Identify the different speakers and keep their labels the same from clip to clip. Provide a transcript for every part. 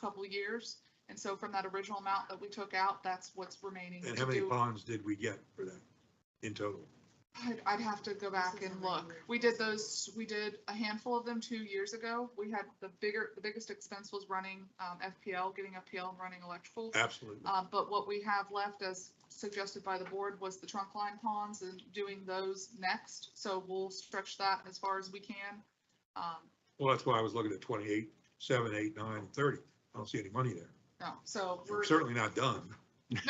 Speaker 1: couple years. And so from that original amount that we took out, that's what's remaining.
Speaker 2: And
Speaker 1: to
Speaker 2: how many
Speaker 1: do.
Speaker 2: ponds did we get for that in total?
Speaker 1: I'd, I'd have to go back
Speaker 3: is
Speaker 1: and
Speaker 3: how many
Speaker 1: look.
Speaker 3: years
Speaker 1: We
Speaker 3: ago.
Speaker 1: did those, we did a handful of them two years ago. We had the bigger, the biggest expense was running um, FPL, getting FPL and running electrical.
Speaker 2: Absolutely.
Speaker 1: Uh, But what we have left as suggested by the board was the trunk line ponds and doing those next. So we'll stretch that as far as we can. Um,
Speaker 2: Well, that's why I was looking at 28, 7, 8, 9, 30. I don't see any money there.
Speaker 1: No, so
Speaker 2: We're
Speaker 1: we're,
Speaker 2: Certainly not done.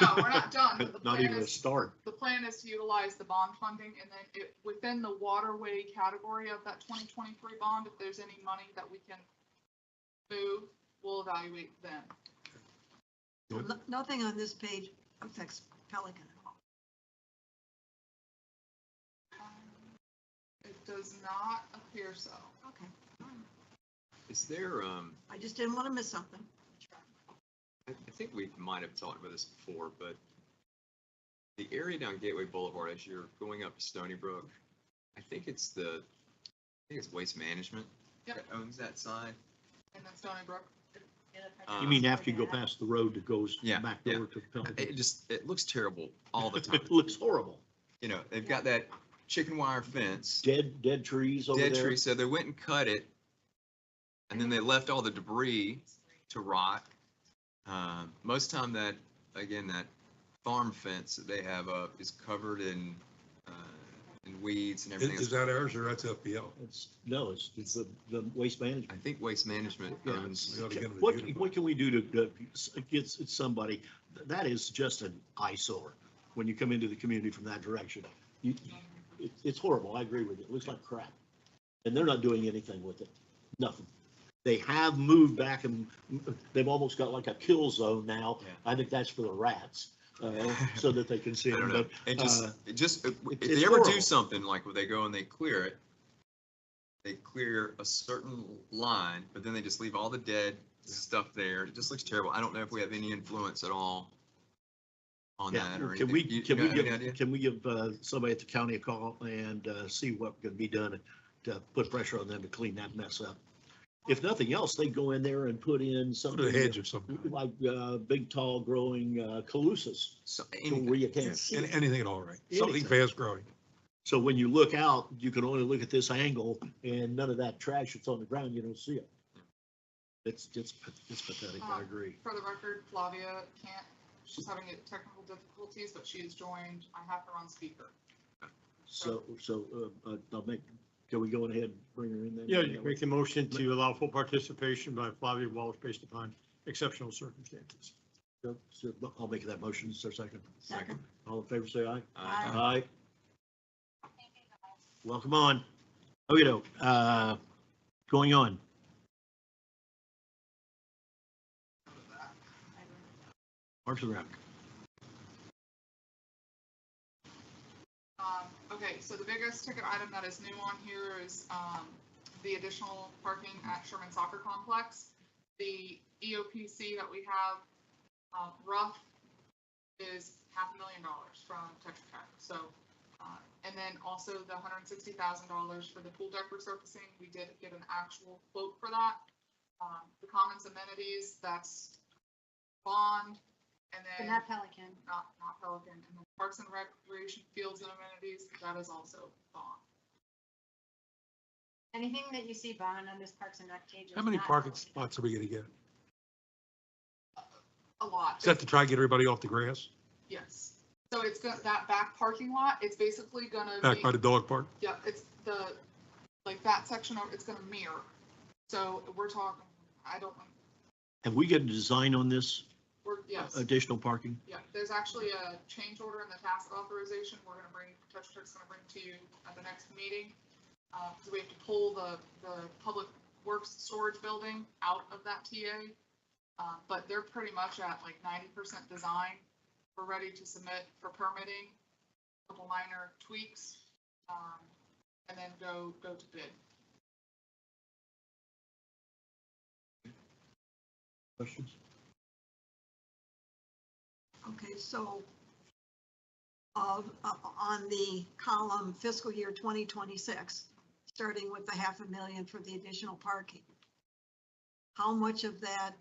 Speaker 1: no, we're not done. but the
Speaker 4: Not
Speaker 1: plan
Speaker 4: even a
Speaker 1: is-
Speaker 4: start.
Speaker 1: The plan is to utilize the bond funding and then it, within the waterway category of that twenty twenty-three bond, if there's any money that we can move, we'll evaluate then.
Speaker 3: So no- Nothing on this page affects Pelican at all.
Speaker 1: Um, It does not appear so.
Speaker 3: Okay,
Speaker 4: Is there, um,
Speaker 3: I just didn't want to miss something.
Speaker 4: I I think we might have talked about this before, but the area down Gateway Boulevard, as you're going up to Stony Brook, I think it's the, I think it's Waste Management
Speaker 1: Yep.
Speaker 4: that owns that sign.
Speaker 1: And then Stony Brook,
Speaker 4: Uh,
Speaker 5: You mean after you go past the road that goes
Speaker 4: Yeah,
Speaker 5: back
Speaker 4: yeah.
Speaker 5: over to
Speaker 4: It
Speaker 5: Pelican?
Speaker 4: just, it looks terrible all the time.
Speaker 5: It looks horrible.
Speaker 4: You know, they've got that chicken wire fence,
Speaker 5: Dead, dead trees over
Speaker 4: dead
Speaker 5: there.
Speaker 4: tree, so they went and cut it. And then they left all the debris to rot. Um, most time that, again, that farm fence that they have up is covered in, uh, in weeds and everything.
Speaker 2: Is is
Speaker 4: else.
Speaker 2: that ours or that's FPL?
Speaker 5: It's, no, it's, it's the, the waste
Speaker 4: I
Speaker 5: management.
Speaker 4: think Waste Management
Speaker 5: Yeah,
Speaker 4: owns,
Speaker 2: We ought to get them to
Speaker 5: What,
Speaker 2: unify.
Speaker 5: what can we do to, to get somebody, that is just an eyesore when you come into the community from that direction. You,
Speaker 1: um,
Speaker 5: it, it's horrible. I agree with you. It looks like crap. And they're not doing anything with it. Nothing. They have moved back and they've almost got like a kill zone now.
Speaker 4: Yeah.
Speaker 5: I think that's for the rats, uh, so that they can see
Speaker 4: I don't
Speaker 5: them.
Speaker 4: know,
Speaker 5: But
Speaker 4: it just,
Speaker 5: uh,
Speaker 4: it just, if if
Speaker 5: it's
Speaker 4: they ever do
Speaker 5: horrible.
Speaker 4: something, like where they go and they clear it, they clear a certain line, but then they just leave all the dead stuff there, it just looks terrible, I don't know if we have any influence at all on
Speaker 5: Yeah,
Speaker 4: that or anything.
Speaker 5: Can we,
Speaker 4: You- you
Speaker 5: can
Speaker 4: got
Speaker 5: we
Speaker 4: any idea?
Speaker 5: give, can we give uh, somebody at the county a call and uh, see what can be done to put pressure on them to clean that mess up? If nothing else, they go in there and put in
Speaker 2: Put a hedge
Speaker 5: something
Speaker 2: of some kind.
Speaker 5: like uh, big, tall growing uh, calusas
Speaker 4: So,
Speaker 5: to where
Speaker 4: anything.
Speaker 5: you can't
Speaker 2: Yes,
Speaker 5: see.
Speaker 2: an-
Speaker 5: it.
Speaker 2: Anything at all, right? Something
Speaker 5: Anything.
Speaker 2: fast growing.
Speaker 5: So when you look out, you can only look at this angle and none of that trash that's on the ground, you don't see it. It's, it's pa- it's pathetic, I
Speaker 1: Um,
Speaker 5: agree.
Speaker 1: for the record, Flavia can't, she's having technical difficulties, but she has joined. I have her on speaker.
Speaker 5: So, so uh, uh, I'll make, can we go ahead and bring her in then?
Speaker 6: Yeah, you can make a motion to allow full participation by Flavia Walsh based upon exceptional circumstances.
Speaker 5: So- so I'll make that motion, sir, second.
Speaker 3: Second.
Speaker 5: All in favor, say aye.
Speaker 4: Uh,
Speaker 5: Aye. Welcome on. Oh, you know, uh, going on. Parks and Rec.
Speaker 1: Um, okay, so the biggest ticket item that is new on here is, um, the additional parking at Sherman Soccer Complex. The E EOPC that we have, um, rough is half a million dollars from Tetra Tech, so. uh, And then also the hundred and sixty thousand dollars for the pool deck resurfacing, we did get an actual quote for that. Um, the commons amenities, that's bond, and then.
Speaker 7: But not Pelican.
Speaker 1: not, not Pelican, and then Parks and Recreation Fields and Amenities, that is also gone.
Speaker 7: Anything that you see bond on this Parks and Rec page.
Speaker 2: How
Speaker 7: is
Speaker 2: many
Speaker 7: not
Speaker 2: parking
Speaker 7: Pelican.
Speaker 2: spots are we gonna get?
Speaker 1: A lot.
Speaker 2: Is that to try to get everybody off the grass,
Speaker 1: Yes. So it's got that back parking lot, it's basically gonna
Speaker 2: back
Speaker 1: be,
Speaker 2: by the dog park?
Speaker 1: yeah, it's the, like that section of, it's gonna mirror. So we're talking, I don't, want-
Speaker 5: Have we got a design on this
Speaker 1: we're, yes,
Speaker 5: additional parking?
Speaker 1: yeah, there's actually a change order in the task authorization, we're gonna bring, Tetra Tech's gonna bring to you at the next meeting. Uh, because we have to pull the, the public works storage building out of that TA. Uh, but they're pretty much at like ninety percent design. We're ready to submit for permitting, couple minor tweaks, um, and then go, go to bid.
Speaker 5: Questions?
Speaker 3: Okay, so of, uh, on the column fiscal year 2026, starting with the half a million for the additional parking. How much of that